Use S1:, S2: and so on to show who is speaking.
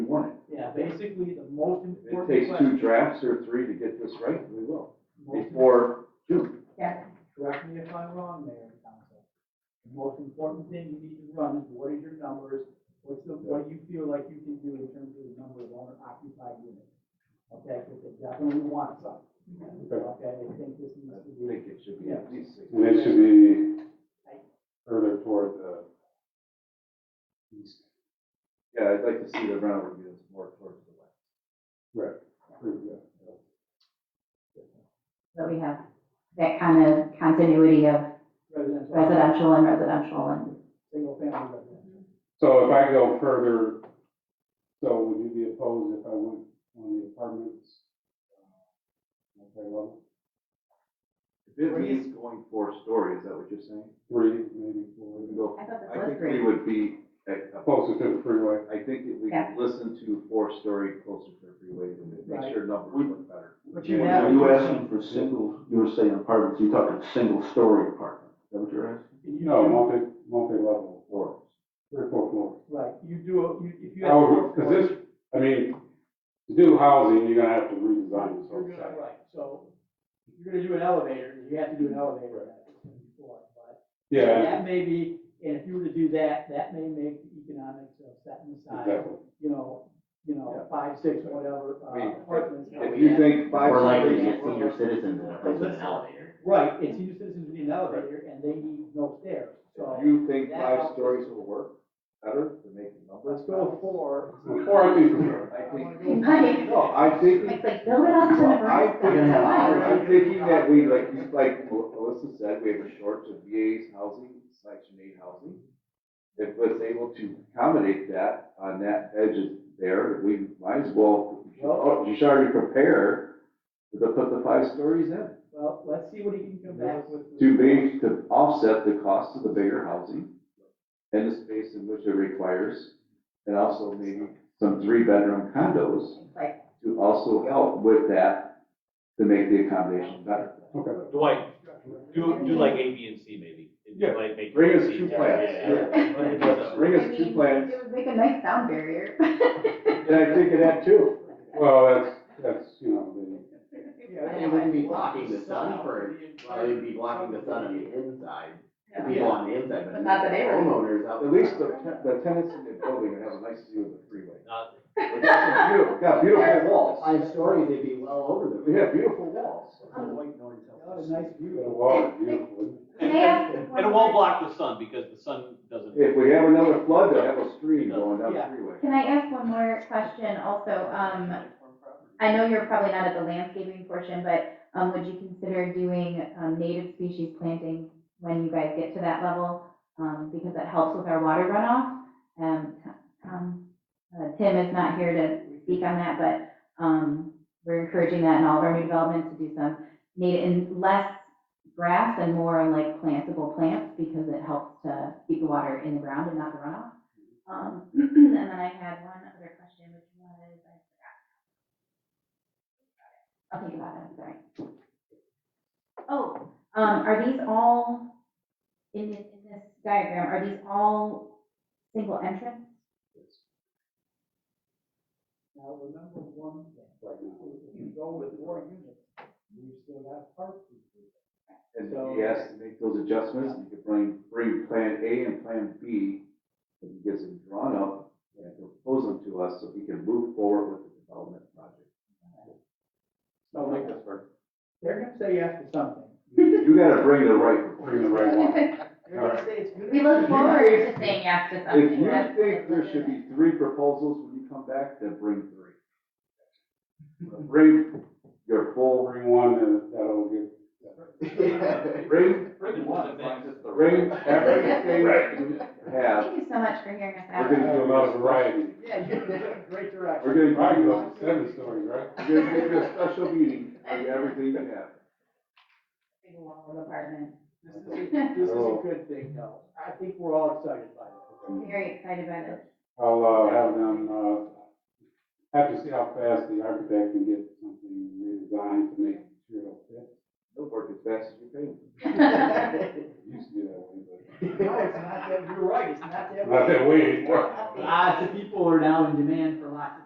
S1: that's basically the most
S2: If it
S1: important
S2: takes two
S1: question.
S2: drafts or three to get this right, we will,
S1: Most-
S2: before June.
S3: Yeah,
S1: Correct me if I'm wrong, Mayor and Council. The most important thing you need to run is what is your numbers, what's the, what you feel like you can do in terms of the number of owner occupied units. Okay, because they definitely want some, okay, they think this
S2: I
S1: needs to be.
S2: think it should be at least six.
S4: And it should be further toward the east.
S2: Yeah, I'd like to see the rental units more towards the west.
S4: Right. Yeah.
S3: so we have that kind of continuity of
S1: residential.
S3: residential and residential and,
S1: Single family residential.
S4: So if I go further, so would you be opposed if I went on the apartments? uh, Okay, level,
S2: If it means going four stories, is that what you're saying?
S4: three, maybe four,
S2: We
S4: we
S2: can
S4: go
S2: go,
S3: I thought this
S2: I
S3: was
S2: think we
S3: three.
S2: would be, at-
S4: closer to the freeway.
S2: I think if we
S3: Yeah.
S2: could listen to four-story closer to the freeway, then it makes
S1: Right.
S2: your numbers look better.
S1: But
S5: You
S2: have-
S5: you asking for single, you were saying apartments, you're talking single-story apartment, is that what you're asking?
S1: You
S4: No,
S1: do-
S4: multi, multi-level,
S2: Or,
S4: three or four floors.
S1: Right, you do, a- you, if you. have four
S4: However,
S1: floors,
S4: because this, I mean, to do housing, you're gonna have to redesign this
S1: You're
S4: whole
S1: gonna,
S4: site.
S1: right, so if you're gonna do an elevator, you have to do an elevator that it's gonna be four, but
S4: Yeah,
S1: that may be, and if you were to do that, that may make the economics of setting aside,
S4: exactly.
S1: you know, you know, five, six, whatever,
S2: I mean,
S1: uh, apartments.
S2: if you think five
S5: Or like
S2: stories.
S5: a senior citizen in a place with an elevator.
S1: Right, it's senior citizens who need an elevator and they need no stairs, so
S2: If you think
S1: That
S2: five
S1: helps.
S2: stories will work better to make the numbers.
S1: let's go four.
S4: Or I think,
S2: I think,
S3: Right.
S2: no, I think,
S3: It's like, build it up to the
S2: I
S3: next
S2: think,
S3: one.
S5: You're gonna have
S3: Why?
S5: higher-
S2: I'm thinking that we, like, you- like Mel- Melissa said, we have a shortage of VA's housing, section eight housing. If was able to accommodate that on that edge of there, we might as well, oh, you should already prepare to put the five stories in.
S1: Well, let's see what he can come back with.
S2: To be, to offset the cost of the bigger housing and the space in which it requires. And also maybe some three-bedroom condos
S3: It's like,
S2: to also help with that, to make the accommodation better.
S4: okay.
S6: Dwight, do, do like A, B, and C maybe.
S4: Yeah.
S6: Like make.
S2: Bring us
S6: it
S2: two
S6: easier.
S2: plants,
S6: Yeah, yeah. But it does-
S2: Bring
S3: I
S2: us two
S3: mean,
S2: plans,
S3: It would make a nice sound barrier.
S2: and I think of that too.
S4: Well, that's, that's, you know, the,
S5: They wouldn't be blocking the sun for, well, they'd be blocking the sun on the inside, the people on the inside, but
S3: But not the neighborhood.
S5: homeowners out.
S2: At least the, ten- the tenants in the building would have a nice view of the freeway.
S6: Not-
S2: We've got some beautiful- Got beautiful walls,
S5: Five stories, they'd be well over them.
S2: we have beautiful walls.
S1: Got a nice
S4: the
S1: view.
S4: wall is beautiful.
S3: Can I ask
S6: And
S3: one
S6: it won't
S3: more-
S6: block the sun because the sun doesn't.
S2: If we have another flood, they'll have a stream going down the freeway.
S3: Can I ask one more question also? Um, I know you're probably not at the landscaping portion, but, um, would you consider doing, um, native species planting when you guys get to that level? Um, because that helps with our water runoff. Um, um, uh, Tim is not here to speak on that, but, um, we're encouraging that in all of our new development to do some native, and less grass and more like plantable plants because it helps to keep the water in the ground and not the runoff. Um, and then I had one other question, which was, I forgot. I'll think about it, I'm sorry. Oh, um, are these all, in this, in this diagram, are these all single entrance?
S1: Now, remember one thing,
S4: right now.
S1: if you go with more units, you still have parking.
S2: And if he has to make those adjustments, you could bring, bring plan A and plan B, and he gets them drawn up, and propose them to us, so he can move forward with the development project.
S1: So like,
S2: this work.
S1: they're gonna say yes to something.
S2: You gotta bring the right
S4: Bring the right one.
S1: They're gonna say it's good.
S3: We look forward to saying yes to
S2: If
S3: something.
S2: you
S3: That's-
S2: think there should be three proposals when you come back, then bring three. Bring your full,
S4: Bring one and that'll get,
S2: bring,
S6: Bring one, thanks.
S2: bring everything you have.
S3: Thank you so much for hearing us
S2: We're
S3: out.
S4: there's a lot of variety.
S1: Yeah, you're in great direction.
S2: We're
S4: Right,
S2: gonna,
S4: you have seven stories, right?
S2: we're gonna give you a special meeting on everything you have.
S3: Single wall apartment.
S1: This is, a- this is a good thing, though. I think we're all excited by it.
S3: Very excited by this.
S4: I'll, uh, have them, uh, have to see how fast the architect can get something redesigned to make sure it'll fit.
S2: They'll work as fast as you can.
S4: It used to be that way,
S1: No, it's not that, you're right, it's not
S4: but
S1: that
S4: not
S1: way.
S4: that way anymore.
S1: Lots of people are now in demand for lots of